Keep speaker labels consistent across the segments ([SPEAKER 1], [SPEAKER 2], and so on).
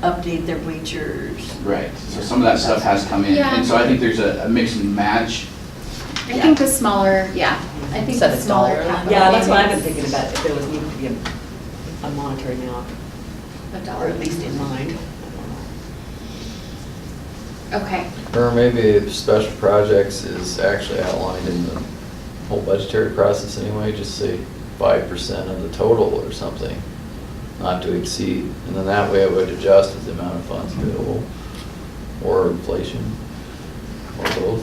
[SPEAKER 1] update their bleachers.
[SPEAKER 2] Right, so some of that stuff has come in, and so I think there's a a mix and match.
[SPEAKER 3] I think the smaller, yeah, I think
[SPEAKER 4] So
[SPEAKER 3] the
[SPEAKER 4] the
[SPEAKER 3] smaller
[SPEAKER 4] dollar
[SPEAKER 3] capital.
[SPEAKER 5] Yeah, that's what I've been
[SPEAKER 3] maybe
[SPEAKER 5] thinking about, if there was needed to be a- a monetary amount,
[SPEAKER 3] A
[SPEAKER 5] or
[SPEAKER 3] dollar
[SPEAKER 5] at least in mind.
[SPEAKER 3] Okay,
[SPEAKER 6] Or maybe if special projects is actually outlined in the whole budgetary process anyway, just say five percent of the total or something, not to exceed, and then that way it would adjust with the amount of funds available, or inflation, or both.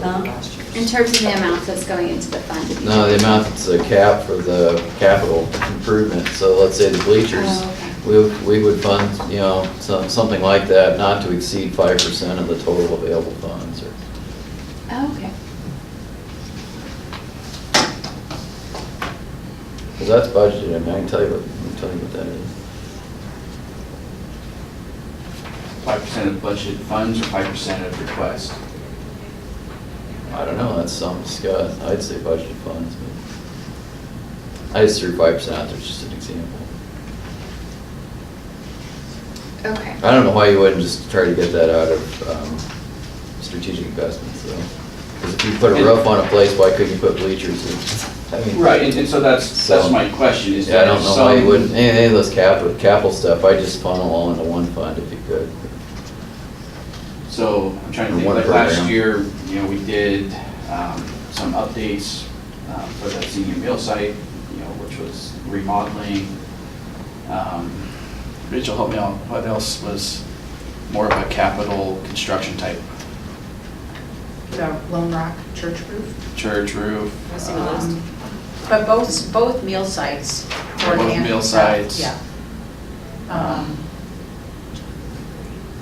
[SPEAKER 5] That would be last year's.
[SPEAKER 3] in terms of the amount that's going into the fund.
[SPEAKER 6] No, the amount that's a cap for the capital improvement, so let's say the bleachers,
[SPEAKER 3] Oh,
[SPEAKER 6] we, we would fund, you know, some, something like that, not to exceed five percent of the total available funds, or
[SPEAKER 3] Oh, Okay,
[SPEAKER 6] Because that's budgeted, I mean, I can tell you what, I can tell you what that is.
[SPEAKER 2] Five percent of budgeted funds or five percent of request?
[SPEAKER 6] I don't know, that's something to discuss, I'd say budgeted funds, but I just threw five percent out there, just an example.
[SPEAKER 3] okay.
[SPEAKER 6] I don't know why you wouldn't just try to get that out of, um, strategic investments, though. Because if you put a roof on a place, why couldn't you put bleachers in? I mean,
[SPEAKER 2] Right, and and so that's, that's my question, is
[SPEAKER 6] Yeah, I
[SPEAKER 2] that
[SPEAKER 6] don't
[SPEAKER 2] if
[SPEAKER 6] know why you wouldn't,
[SPEAKER 2] some,
[SPEAKER 6] any any of those capital, capital stuff, I just funnel all into one fund if you could.
[SPEAKER 2] so I'm trying to
[SPEAKER 6] Or
[SPEAKER 2] think,
[SPEAKER 6] one
[SPEAKER 2] like last
[SPEAKER 6] program.
[SPEAKER 2] year, you know, we did um, some updates um, for the senior meal site, you know, which was remodeling. Um, Rachel, help me out, what else was more of a capital construction type?
[SPEAKER 4] The Lone Rock Church roof.
[SPEAKER 2] Church roof?
[SPEAKER 4] I see the
[SPEAKER 2] um,
[SPEAKER 4] list. But both, both meal sites. were
[SPEAKER 2] Both
[SPEAKER 4] hand-
[SPEAKER 2] meal sites.
[SPEAKER 4] Yeah. Um,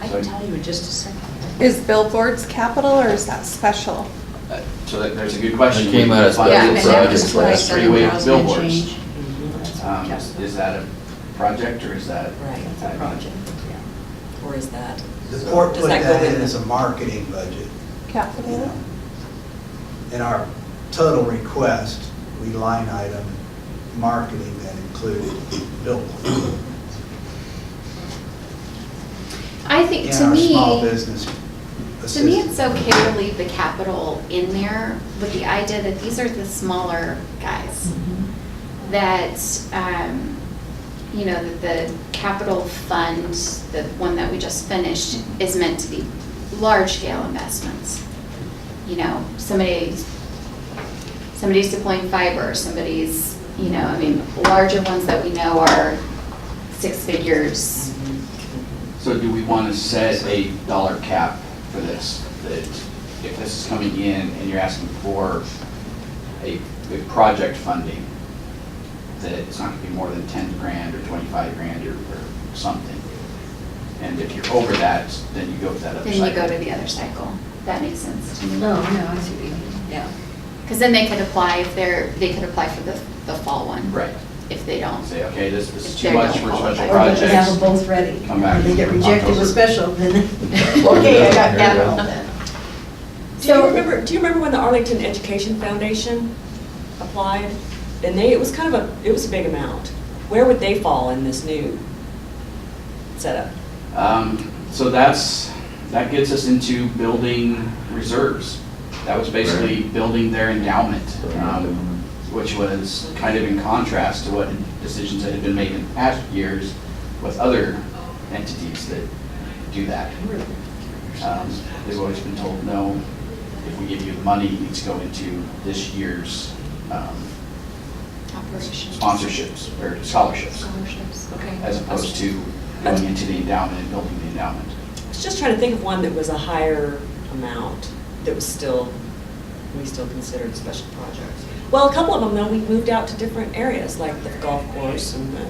[SPEAKER 4] I can
[SPEAKER 2] So-
[SPEAKER 4] tell you in just a second.
[SPEAKER 7] Is billboards capital or is that special?
[SPEAKER 2] Uh, So that, there's a good question.
[SPEAKER 6] It came out as
[SPEAKER 2] Funded
[SPEAKER 6] Yeah,
[SPEAKER 2] for uh,
[SPEAKER 6] special
[SPEAKER 2] a
[SPEAKER 6] that was projects. like
[SPEAKER 2] Three-way
[SPEAKER 4] $7,000 and
[SPEAKER 2] billboards.
[SPEAKER 4] change.
[SPEAKER 5] Mm-hmm.
[SPEAKER 2] Um,
[SPEAKER 4] Yes.
[SPEAKER 2] is is that a project or is that?
[SPEAKER 5] Right, it's a project, yeah. Or is that?
[SPEAKER 8] The port
[SPEAKER 5] Does
[SPEAKER 8] put
[SPEAKER 5] that go
[SPEAKER 8] that in
[SPEAKER 5] in?
[SPEAKER 8] as a marketing budget. you
[SPEAKER 7] Capital?
[SPEAKER 8] know. In our total request, we line item marketing that included billboards.
[SPEAKER 3] I think,
[SPEAKER 8] In
[SPEAKER 3] to
[SPEAKER 8] our
[SPEAKER 3] me.
[SPEAKER 8] small business
[SPEAKER 3] To me, it's
[SPEAKER 8] assistance.
[SPEAKER 3] okay to leave the capital in there with the idea that these are the smaller guys. That, um, you know, that the capital fund, the one that we just finished, is meant to be large scale investments. You know, somebody's, somebody's deploying fiber, somebody's, you know, I mean, larger ones that we know are six figures.
[SPEAKER 2] So do we want to set a dollar cap for this? That if this is coming in and you're asking for a, a project funding, that it's not going to be more than ten grand or twenty-five grand or, or something? And if you're over that, then you go to that other
[SPEAKER 3] Then
[SPEAKER 2] side.
[SPEAKER 3] you go to the other cycle. That makes sense to me.
[SPEAKER 1] No, no, I see what you mean.
[SPEAKER 5] Yeah.
[SPEAKER 3] Because then they could apply if they're, they could apply for the, the fall one.
[SPEAKER 2] Right.
[SPEAKER 3] If they don't.
[SPEAKER 2] Say, okay, this this is
[SPEAKER 3] If
[SPEAKER 2] too
[SPEAKER 3] they
[SPEAKER 2] much
[SPEAKER 3] don't
[SPEAKER 2] for
[SPEAKER 3] qualify.
[SPEAKER 2] special
[SPEAKER 3] Or
[SPEAKER 1] Or you just have
[SPEAKER 2] projects.
[SPEAKER 1] them both ready.
[SPEAKER 2] Come back
[SPEAKER 1] If They get
[SPEAKER 2] in
[SPEAKER 1] rejected with
[SPEAKER 2] October.
[SPEAKER 1] special, then,
[SPEAKER 6] Plug it
[SPEAKER 1] okay, I
[SPEAKER 6] in,
[SPEAKER 1] got
[SPEAKER 6] there you
[SPEAKER 1] capital
[SPEAKER 6] go.
[SPEAKER 1] then.
[SPEAKER 5] Do you remember, do you remember when the Arlington Education Foundation applied? And they, it was kind of a, it was a big amount. Where would they fall in this new setup?
[SPEAKER 2] Um, So that's, that gets us into building reserves. That was basically building their endowment, um, which was kind of in contrast to what decisions that had been made in past years with other entities that do that. Um, They've always been told, no, if we give you the money, it needs to go into this year's um,
[SPEAKER 3] Operations.
[SPEAKER 2] sponsorships or scholarships,
[SPEAKER 3] Scholarships.
[SPEAKER 5] Okay.
[SPEAKER 2] as opposed to going into the endowment and building the endowment.
[SPEAKER 5] I was just trying to think of one that was a higher amount, that was still, we still considered special projects. Well, a couple of them, though, we moved out to different areas, like the golf course and the,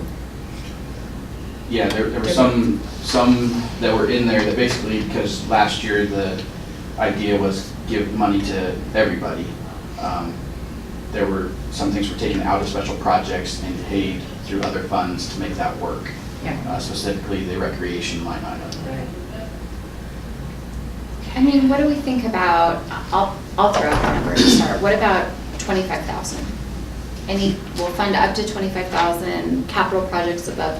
[SPEAKER 2] Yeah, there, there were some, some that were in there that basically, because last year the idea was give money to everybody. um, There were, some things were taken out of special projects and paid through other funds to make that work. Uh, Specifically, the recreation line item.
[SPEAKER 5] right?
[SPEAKER 3] I mean, what do we think about, I'll, I'll throw out a number to start. What about twenty-five thousand? Any, we'll fund up to twenty-five thousand, capital projects above